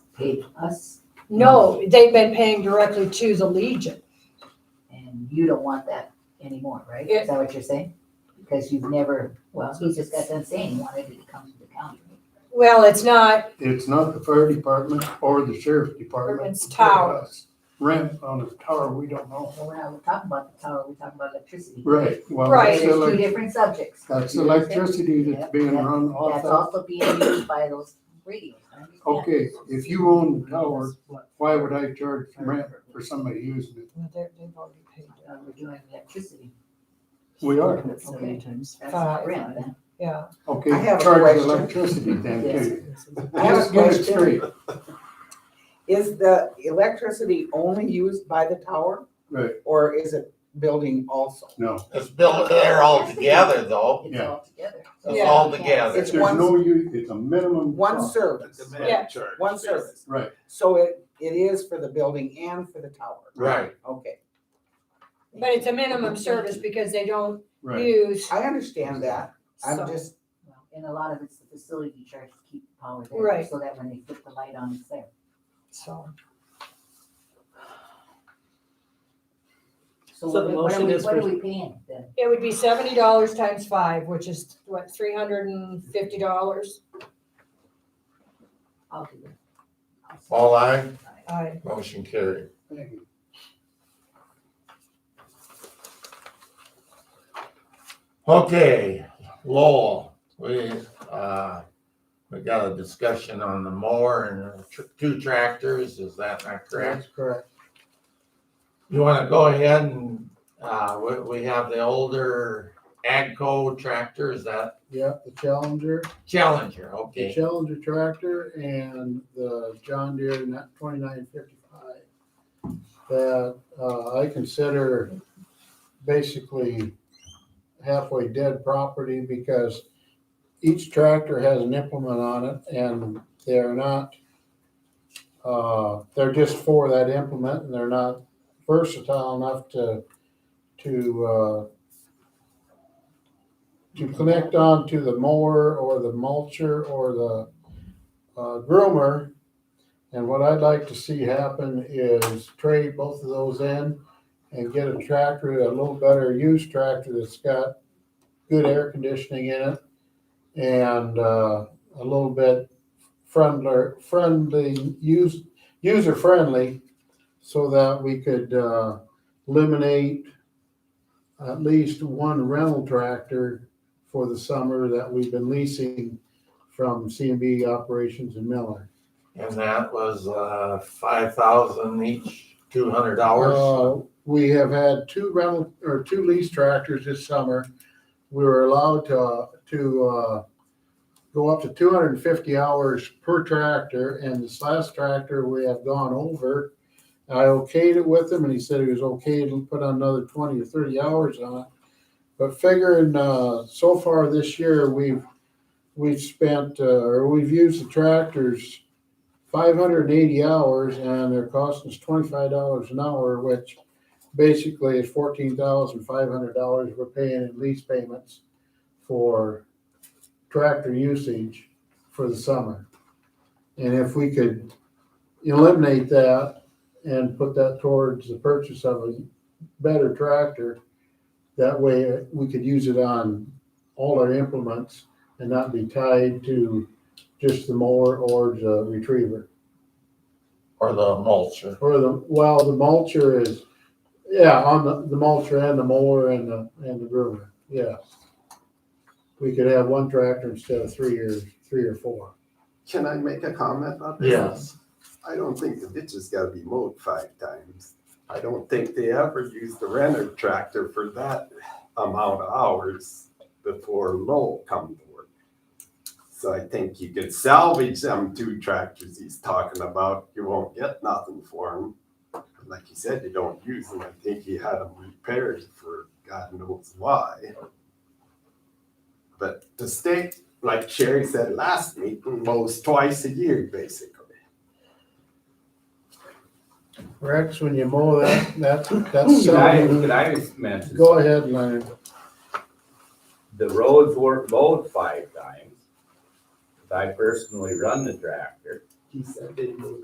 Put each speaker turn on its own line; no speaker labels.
paid us,
No, they've been paying directly to the Legion.
and you don't want that anymore, right?
Yeah.
Is that what you're saying? Because you've never, well, he just got done saying he wanted it to come to the county.
Well, it's not,
It's not the fire department or the sheriff's department.
It's towers.
Rent on a tower, we don't know.
Well, we're not talking about the tower, we're talking about electricity.
Right, well,
Right.
that's
There's two
elec-
different subjects.
that's electricity that's being run off
That's
that.
also being used by those radios. I understand.
Okay, if you own the tower, why would I charge rent for somebody using it?
well, they're- they've already paid it.
Uh, We're doing electricity.
We are,
Okay. That's
Uh,
not rent then.
Yeah,
I
okay,
have a
charge
question.
electricity then
Yes.
too.
I have a
Just get it
question.
straight,
Is the electricity only used by the tower
right,
or is it building also?
no.
It's built there all together though.
It's
Yeah.
all together.
It's
Yeah.
all together.
It's
There's
one-
no, u- it's a minimum.
One
cost.
service,
Yeah.
one service.
Right.
So it, it is for the building and for the tower.
Right.
Okay,
but it's a minimum service because they don't
Right,
use.
I understand that.
so-
I'm just,
Well, And a lot of it's the facility charge to keep the power there.
Right.
So that when they put the light on, it's there.
So,
So
So what
the
are we, what are
motion
we-
is
what are
for-
we paying then?
it would be seventy dollars times five, which is what, three hundred and fifty dollars?
I'll do it. I'll say
All aye,
it.
I,
motion carried.
Thank you.
Okay, Lowell, we, uh, we got a discussion on the mower and tr- two tractors, is that not correct?
that's correct.
You wanna go ahead and, uh, we, we have the older Agco tractor, is that
Yep, the Challenger,
Challenger,
the
okay?
Challenger tractor and the John Deere twenty-nine fifty-five. That, uh, I consider basically halfway dead property because each tractor has an implement on it and they're not, uh, they're just for that implement and they're not versatile enough to, to, uh, to connect on to the mower or the mulcher or the uh, groomer. And what I'd like to see happen is trade both of those in and get a tractor, a little better used tractor that's got good air conditioning in it and uh, a little bit friendlier, friendly, use, user friendly so that we could uh, eliminate at least one rental tractor for the summer that we've been leasing from CMB Operations in Miller.
And that was, uh, five thousand each, two hundred hours.
Uh, We have had two rental, or two lease tractors this summer. We were allowed to, to uh, go up to 250 hours per tractor, and this last tractor we have gone over. I okayed it with him, and he said he was okay to put another 20 or 30 hours on it. But figuring, uh, so far this year, we've, we've spent, uh, or we've used the tractors five hundred and eighty hours and they're costing us twenty-five dollars an hour, which basically is fourteen thousand five hundred dollars we're paying in lease payments for tractor usage for the summer. And if we could eliminate that and put that towards the purchase of a better tractor, that way we could use it on all our implements and not be tied to just the mower or the retriever.
Or the mulcher.
Or the, well, the mulcher is, yeah, on the, the mulcher and the mower and the, and the groomer, yes. We could have one tractor instead of three or, three or four.
Can I make a comment on this?
Yes,
I don't think the ditch has gotta be mowed five times. I don't think they ever use the renter tractor for that amount of hours before Lowell come to work. So I think you could salvage them two tractors he's talking about. You won't get nothing for them. Like you said, you don't use them. I think he had them repaired for God knows why. But the state, like Sherry said last meeting, mows twice a year basically.
Rex, when you mow that, that, that's,
Could I, could
seven-
I just mention?
go ahead, Leonard.
The roads were mowed five times. I personally run the tractor.
He said they moved